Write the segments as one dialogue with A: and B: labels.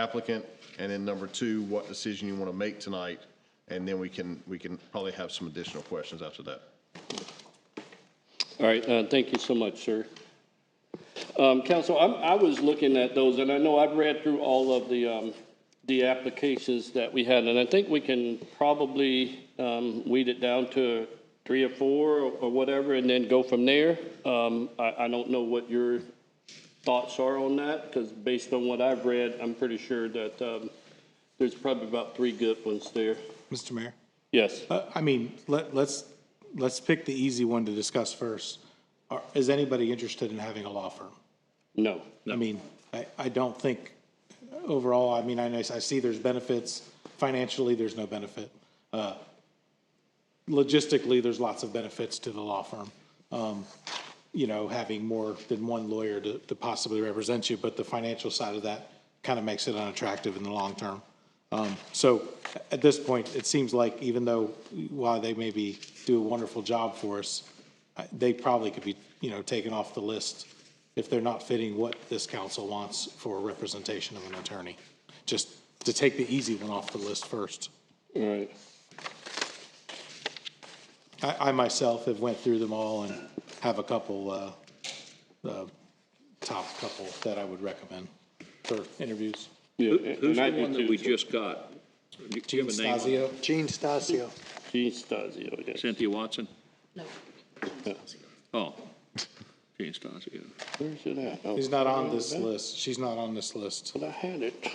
A: applicant, and then number two, what decision you want to make tonight, and then we can, we can probably have some additional questions after that.
B: All right, uh, thank you so much, sir. Um, Council, I'm, I was looking at those, and I know I've read through all of the, um, the applications that we had, and I think we can probably, um, weed it down to three or four or or whatever, and then go from there. Um, I, I don't know what your thoughts are on that, because based on what I've read, I'm pretty sure that, um, there's probably about three good ones there.
C: Mr. Mayor,
B: Yes.
C: uh, I mean, let, let's, let's pick the easy one to discuss first. Are- Is anybody interested in having a law firm?
B: No.
C: I mean, I, I don't think, overall, I mean, I know, I see there's benefits, financially, there's no benefit. Uh, Logistically, there's lots of benefits to the law firm. Um, You know, having more than one lawyer to, to possibly represent you, but the financial side of that kind of makes it unattractive in the long term. Um, So at this point, it seems like even though, while they maybe do a wonderful job for us, I- they probably could be, you know, taken off the list if they're not fitting what this council wants for representation of an attorney. Just to take the easy one off the list first.
B: All right.
C: I, I myself have went through them all and have a couple, uh, uh, top couple that I would recommend for interviews.
B: Yeah,
D: Who- Who's
B: and I
D: the
B: do
D: one
B: too,
D: that we
B: so.
D: just got? Do you- Do you
C: Gene
D: have a name? on it?
C: Stasio,
E: Gene Stasio.
B: Gene Stasio, yes.
D: Cynthia Watson?
F: No.
D: Oh, Gene Stasio.
B: Where's it at? Oh,
C: he's not on this list. She's not on this list.
B: But I had it.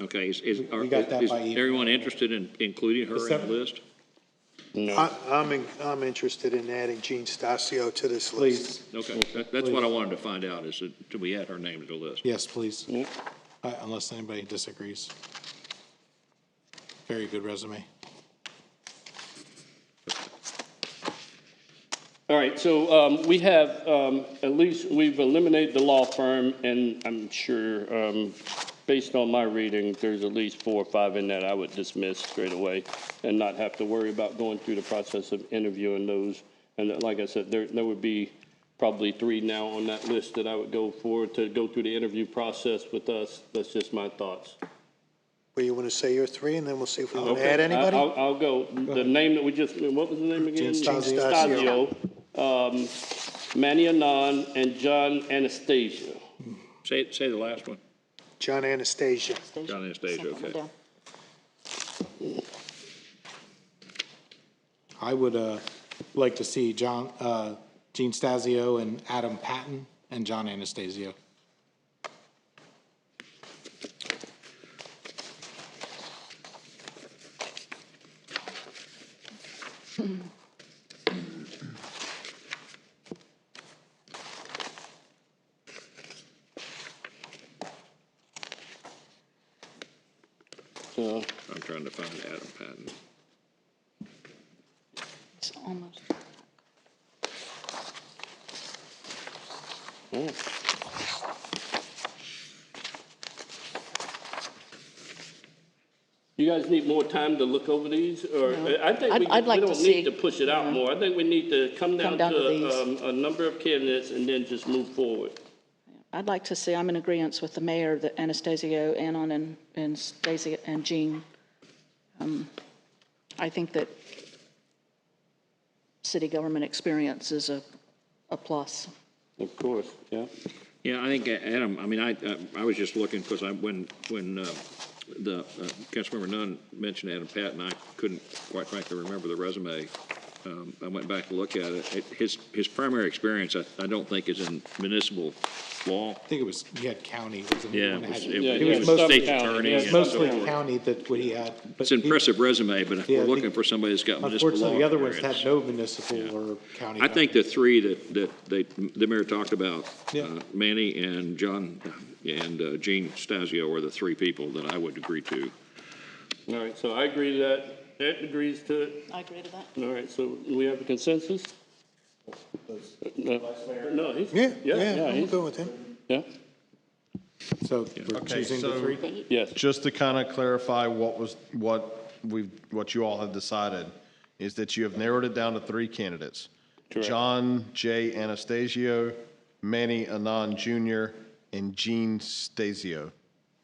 D: Okay, is, is, are-
C: We got that
D: is
C: by email.
D: everyone interested in including her in the
C: Except-
D: list?
E: I- I'm, in- I'm interested in adding Gene Stasio to this list.
C: Please,
D: Okay, that- that's what I wanted to find out, is that, do we add her name to the list?
C: yes, please. Uh, Unless anybody disagrees. Very good resume.
B: All right, so um, we have, um, at least we've eliminated the law firm, and I'm sure, um, based on my reading, there's at least four or five in that I would dismiss straight away and not have to worry about going through the process of interviewing those. And that, like I said, there, there would be probably three now on that list that I would go for to go through the interview process with us. That's just my thoughts.
E: Well, you want to say your three, and then we'll see if we want to
B: Okay,
E: add
B: I-
E: anybody?
B: I'll, I'll go. The name that we just, what was the name again?
C: Gene Stasio.
B: Stasio, um, Manny Anon, and John Anastasia.
D: Say, say the last one.
E: John Anastasia.
D: John Anastasia,
F: Second one
D: okay.
F: down.
C: I would uh, like to see John, uh, Gene Stasio and Adam Patton and John Anastasio.
B: So,
D: I'm trying to find Adam Patton.
F: It's almost.
B: You guys need more time to look over these, or,
F: No.
B: I think
F: I'd-
B: we,
F: I'd
B: we
F: like to
B: don't need
F: see.
B: to push it out
F: Yeah.
B: more. I think we need to come down
F: down to
B: to,
F: these.
B: um, a number of candidates and then just move forward.
F: I'd like to see, I'm in agreement with the mayor, that Anastasio, Anon, and, and Stasia, and Jean. Um, I think that city government experience is a, a plus.
B: Of course, yeah.
D: Yeah, I think, uh, Adam, I mean, I, uh, I was just looking, because I, when, when uh, the, uh, Councilmember Nunn mentioned Adam Patton, I couldn't quite frankly remember the resume. Um, I went back to look at it. It- His, his primary experience, I, I don't think, is in municipal law.
C: I think it was, he had county. was the
D: Yeah,
C: one
D: it
C: that
D: was,
C: had-
D: it
B: Yeah,
D: was-
B: he was
D: it was
B: sub
D: state
B: county,
D: attorney.
B: yeah,
D: and
C: It's
D: so
C: mostly
D: forth.
C: county that what he had. but
D: It's
C: he-
D: an impressive resume, but if
C: Yeah, I
D: we're looking
C: think-
D: for somebody that's got municipal law
C: Unfortunately, the other ones
D: experience.
C: had no municipal or county.
D: I think the three that, that they, the mayor talked about,
C: Yeah.
D: uh, Manny and John and uh, Gene Stasio are the three people that I would agree to.
B: All right, so I agree to that. That agrees to it.
F: I agree to that.
B: All right, so we have a consensus? Uh, No, no, he's.
E: Yeah, yeah,
B: Yeah,
E: I'm
B: he's,
E: good with him.
B: yeah,
C: So we're
A: Okay,
C: choosing the
A: so-
C: three.
B: yes.
A: Just to kind of clarify what was, what we've, what you all have decided, is that you have narrowed it down to three candidates.
B: Correct.
A: John J. Anastasio, Manny Anon Jr., and Gene Stasio.